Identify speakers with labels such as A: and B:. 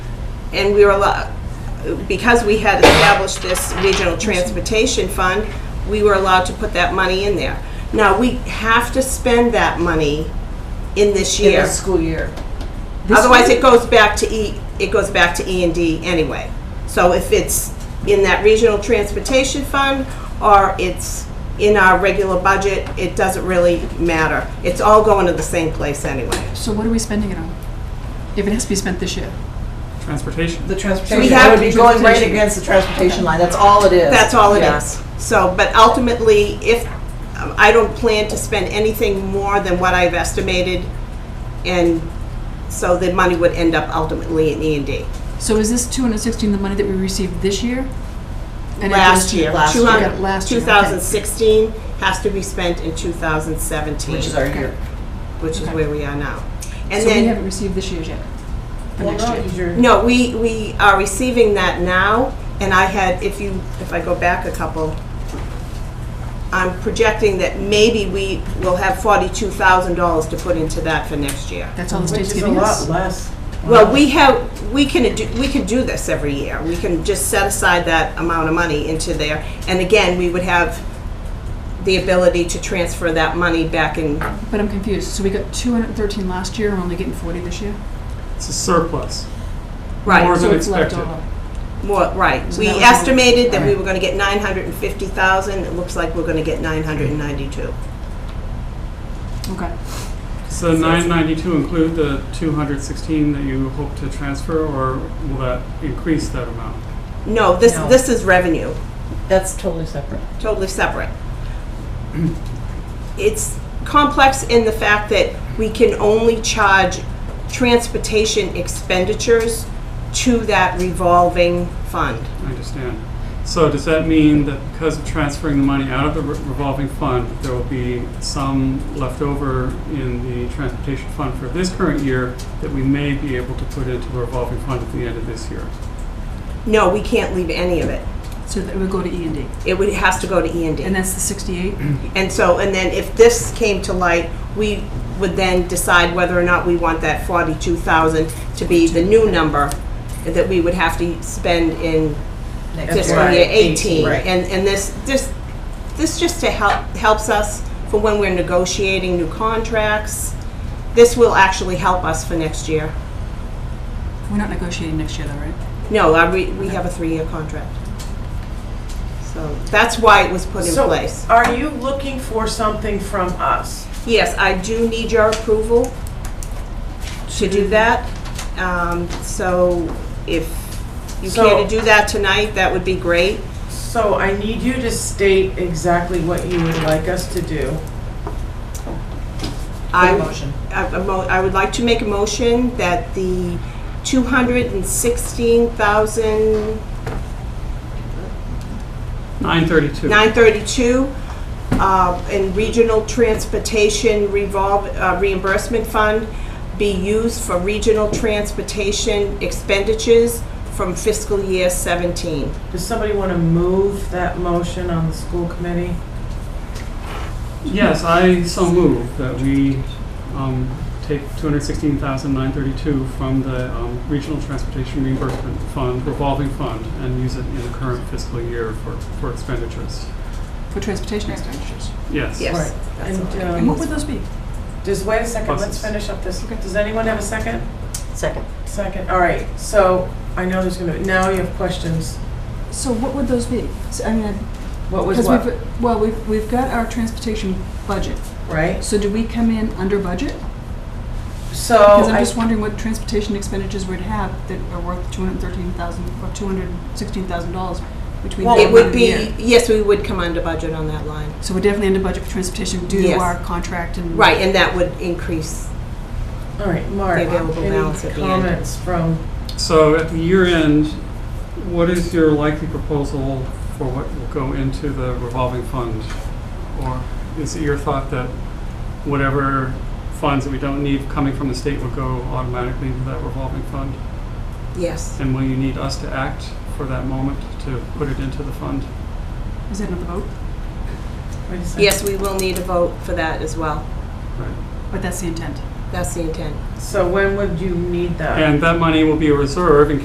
A: and we were allowed, because we had established this regional transportation fund, we were allowed to put that money in there. Now, we have to spend that money in this
B: in
A: year.
B: the school year.
A: Otherwise, it goes back to E, it goes back to E and D anyway. So if it's in that regional transportation fund, or it's in our regular budget, it doesn't really matter. It's all going to the same place anyway.
C: So what are we spending it on? If it has to be spent this year?
D: Transportation.
B: The transportation,
A: have
B: it would be
A: to-
B: going right against the transportation line, that's all it is.
A: That's all it
B: Yeah.
A: is. So, but ultimately, if, I don't plan to spend anything more than what I've estimated, and so the money would end up ultimately in E and D.
C: So is this 216 the money that we received this year? And it
A: Last
C: goes-
A: year,
B: last
A: two
B: year.
A: hundred-
C: Okay, last year, okay.
A: 2016 has to be spent in 2017.
B: Which is our year.
A: which is
C: Okay.
A: where we are now. And
C: So we
A: then,
C: haven't received this year's yet? For next year?
A: no, we, we are receiving that now, and I had, if you, if I go back a couple, I'm projecting that maybe we will have forty-two thousand dollars to put into that for next year.
C: That's all the
B: Which
C: state's
B: is a
C: giving
B: lot
C: us?
B: less.
A: Well, we have, we can do, we can do this every year. We can just set aside that amount of money into there. And again, we would have the ability to transfer that money back in
C: But I'm confused. So we got 213 last year, and we're only getting 40 this year?
D: It's a surplus.
A: Right.
D: More
C: So
D: than
C: it's left
D: expected.
C: over.
A: More, right,
C: So
A: we
C: that was-
A: estimated that we
C: Right.
A: were gonna get nine hundred and fifty thousand, it looks like we're gonna get nine hundred and ninety-two.
C: Okay.
D: Does the 992 include the 216 that you hope to transfer, or will that increase that amount?
A: No, this,
B: No.
A: this is revenue,
B: That's totally separate.
A: totally separate. It's complex in the fact that we can only charge transportation expenditures to that revolving fund.
D: I understand. So does that mean that because of transferring the money out of the re- revolving fund, there will be some left over in the transportation fund for this current year that we may be able to put into the revolving fund at the end of this year?
A: No, we can't leave any of it,
C: So that would go to E and D.
A: it would, it has to go to E and D.
C: And that's the 68?
A: And so, and then if this came to light, we would then decide whether or not we want that forty-two thousand to be the new number that we would have to spend in
B: Next
A: fiscal year eighteen.
B: Right.
A: And, and this, this, this just to help, helps us for when we're negotiating new contracts. This will actually help us for next year.
C: We're not negotiating next year, though, right?
A: No, I, we, we have a three-year contract. So that's why it was put in
E: So,
A: place.
E: Are you looking for something from us?
A: Yes, I do need your approval to do that. Um, So if you care
E: So-
A: to do that tonight, that would be great.
E: So I need you to state exactly what you would like us to do.
A: I-
B: Good motion.
A: I a mo- I would like to make a motion that the 216,932
D: 932.
A: uh, in Regional Transportation revolve uh, Reimbursement Fund be used for regional transportation expenditures from fiscal year 17.
E: Does somebody want to move that motion on the school committee?
D: Yes, I so move that we um, take 216,932 from the um, Regional Transportation Reimbursement Fund, revolving fund, and use it in the current fiscal year for for expenditures.
C: For transportation expenditures.
D: Yes.
A: Yes.
E: Right.
A: that's all.
E: And
C: And what would
E: um,
C: those be?
E: just wait a second, let's
D: Buses.
E: finish up this. Does anyone have a second?
B: Second.
E: Second, all right. So I know there's going to, now you have questions.
C: So what would those be? So, I mean, I-
E: What was
C: Because
E: what,
C: we've, well, we've, we've got our transportation budget.
E: right?
C: So do we come in under budget?
E: So
A: Oh,
C: Because I'm
E: I-
C: just wondering what transportation expenditures we'd have that are worth two hundred thirteen thousand, or two hundred sixteen thousand dollars between now
E: Well,
C: and
A: It
C: the end of
A: would
C: the
A: be,
C: year.
A: yes, we would come under budget on that line.
C: So we're definitely under budget for transportation due to
A: Yes.
C: our contract and.
A: Right, and that would increase.
E: all right, Mark,
A: The available balance
E: any
A: at the end.
E: comments from,
D: So at the year end, what is your likely proposal for what will go into the revolving fund? Or is it your thought that whatever funds that we don't need coming from the state will go automatically into that revolving fund?
A: Yes.
D: And will you need us to act for that moment to put it into the fund?
C: Is that another vote?
E: wait a second.
A: Yes, we will need a vote for that as well.
D: Right.
C: But that's the intent.
A: That's the intent.
E: So when would you need that?
D: And that money will be a reserve in